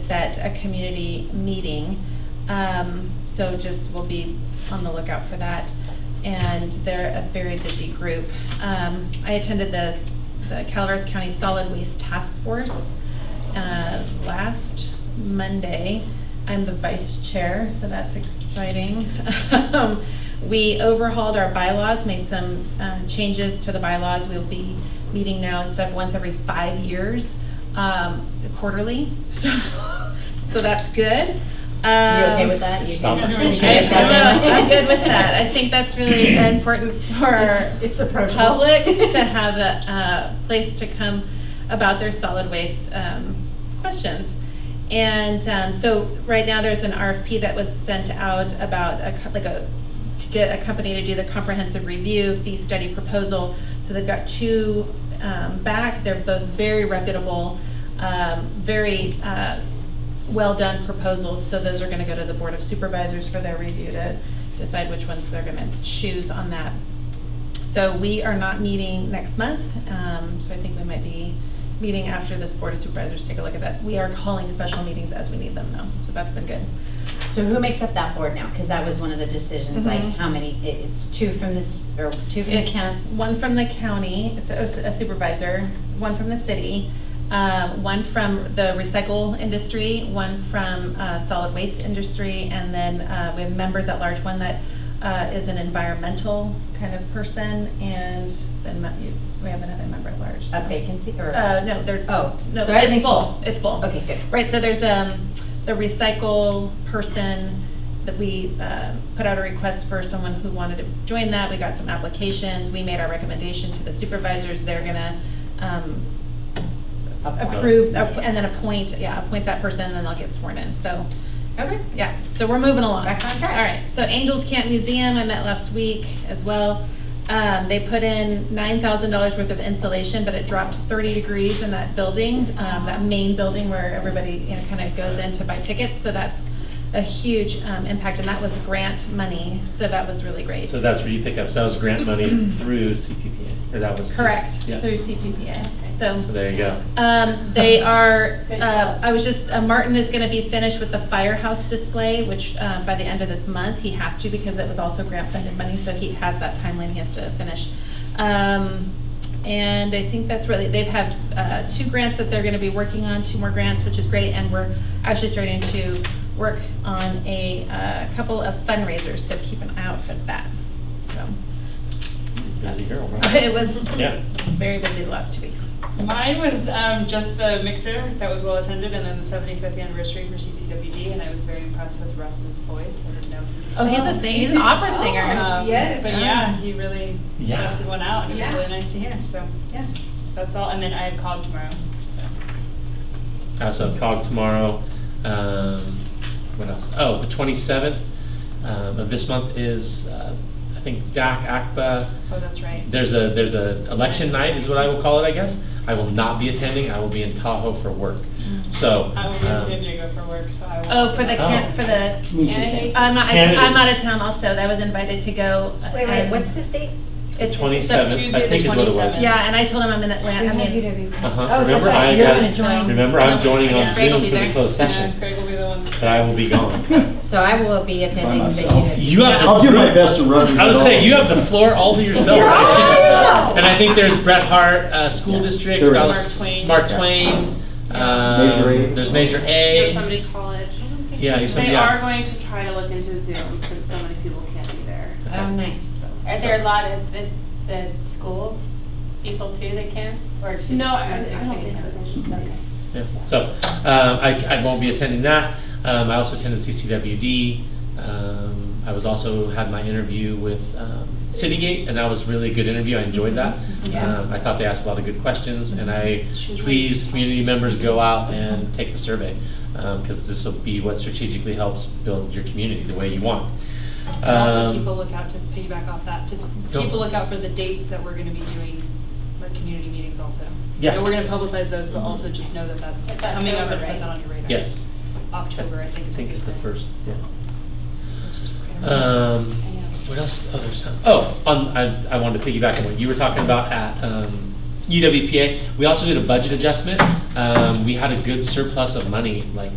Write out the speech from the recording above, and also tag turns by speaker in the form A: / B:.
A: set a community meeting. Um, So just, we'll be on the lookout for that. And they're a very busy group. Um, I attended the the Calaveras County Solid Waste Task Force uh, last Monday. I'm the vice chair, so that's exciting. Um, We overhauled our bylaws, made some uh, changes to the bylaws. We'll be meeting now instead of once every five years, um, quarterly, so, so that's good.
B: You okay with that? You
C: Stop
B: can-
C: it.
B: you can
A: I-
B: get that
A: Um, I'm
B: done.
A: I'm good with that. I think that's really important for
B: It's- It's approachable.
A: public to have a uh, place to come about their solid waste um, questions. And um, so right now, there's an RFP that was sent out about a, co- like a, to get a company to do the comprehensive review fee study proposal. So they've got two um, back, they're both very reputable, um, very uh, well-done proposals. So those are going to go to the Board of Supervisors for their review to decide which ones they're going to choose on that. So we are not meeting next month, um, so I think we might be meeting after this Board of Supervisors take a look at that. We are calling special meetings as we need them though, so that's been good.
B: So who makes up that board now? Because that was one of the decisions, like
A: Mhm.
B: how many, it- it's two from this, or two from the
A: It's
B: council.
A: one from the county, it's a a supervisor, one from the city, uh, one from the recycle industry, one from uh, solid waste industry, and then uh, we have members at large, one that uh, is an environmental kind of person, and then me- we have another member at large. so.
B: A vacancy or?
A: Uh, no, there's,
B: Oh,
A: no,
B: so everything's
A: it's full,
B: full.
A: it's full.
B: Okay, good.
A: Right, so there's, um, the recycle person that we, uh, put out a request for someone who wanted to join that. We got some applications, we made our recommendation to the supervisors, they're gonna, um,
B: Appoint.
A: approve, app- and then appoint, yeah, appoint that person, and then they'll get sworn in, so.
B: Okay.
A: Yeah, so we're moving along.
B: Back on track.
A: All right, so Angels Camp Museum, I met last week as well. Um, they put in nine thousand dollars worth of insulation, but it dropped thirty degrees in that building, um, that main building where everybody, you know, kind of goes in to buy tickets, so that's a huge, um, impact, and that was grant money, so that was really great.
C: So that's where you pick up, so that was grant money through CPPA, or that was? through-
A: Correct,
C: Yeah.
A: through CPPA,
C: So there you go.
A: Um, they are, uh, I was just, uh, Martin is gonna be finished with the firehouse display, which, uh, by the end of this month, he has to because it was also grant funded money, so he has that timeline he has to finish. Um, and I think that's really, they've had, uh, two grants that they're gonna be working on, two more grants, which is great, and we're actually starting to work on a, uh, couple of fundraisers, so keep an eye out for that, so.
C: Busy girl,
A: It
C: right?
A: was
C: Yeah.
A: very busy the last two weeks.
D: Mine was um, just the mixer that was well attended, and then the 75th anniversary for CCWD, and I was very impressed with Russ's voice. I didn't know. he
A: Oh,
D: was-
A: he's a singer. He's an opera singer.
D: Um,
E: yes.
D: But yeah, he really
C: Yeah.
D: busted one out, and it was
E: Yeah.
D: really nice to hear. So yeah, that's all. And then I have called tomorrow.
C: I also have COG tomorrow. Um, what else? Oh, the 27th um, of this month is, uh, I think, DAC, ACPA.
D: Oh, that's right.
C: There's a, there's a election night is what I will call it, I guess. I will not be attending. I will be in Tahoe for work.
A: Mm.
C: So.
D: I will be in
C: um,
D: San Diego for work, so I will.
A: Oh, for the
C: Oh.
A: camp, for the,
D: Candidates.
A: I'm not, I'm
C: Candidates.
A: out of town also, I was invited to go.
B: Wait, wait,
A: um,
B: what's this date?
A: It's so-
C: 27th,
D: Tuesday
C: I
D: the
C: think is what it was.
D: 27th.
A: Yeah, and I told him I'm in Atlanta, I mean.
C: Uh-huh.
B: Oh, that's
C: Remember,
B: right.
C: I
B: You're
C: got-
B: gonna join.
C: Remember, I'm joining on
A: Yeah. Greg will
C: Zoom
A: be
C: for the
A: there.
C: closed
D: Yeah,
C: session,
D: Craig will be the one.
C: but I will be gone.
B: So I will be attending. but
F: myself.
B: have-
C: You have
F: I'll do my best to run.
C: I would say you have the floor all to yourself.
B: You're all by yourself.
C: And I think there's Bret Hart, uh, School District,
F: There
C: Mark
D: is.
C: Twain.
D: Mark
C: Mark Twain. Um,
F: Measure A.
C: There's Measure A.
G: Yosemite College.
C: Yeah, Yosemite,
G: They
C: yeah.
G: are going to try to look into Zoom since so many people can't be there.
C: Uh,
B: Oh, nice.
H: Are there a lot of this, the school people too that can, or it's just?
G: No, I-
H: or is it
G: I
H: just
G: don't
H: the
G: think so.
H: campus? Okay.
C: Yeah. So um, I, I won't be attending that. Um, I also attended CCWD. Um, I was also had my interview with um, Citygate, and that was really a good interview. I enjoyed that.
G: Yeah.
C: Um, I thought they asked a lot of good questions, and I
G: She was
C: please community members go out and take the survey because this will be what strategically helps build your community the way you want.
D: And also
C: Um,
D: keep a lookout to piggyback off that, to
C: Go.
D: keep a lookout for the dates that we're gonna be doing, like, community meetings also.
C: Yeah.
D: And we're gonna publicize those, but also just know that that's
H: It's
D: coming up and
H: October,
D: put that
H: right?
D: on your radar.
C: Yes.
D: October, I think
C: I
D: is what
C: think
D: you
C: it's the
D: said.
C: first. Yeah.
D: Which is great.
C: Um, what else? Oh, there's some. Oh, on, I, I wanted to piggyback on what you were talking about at um, UWPA. We also did a budget adjustment. Um, we had a good surplus of money, like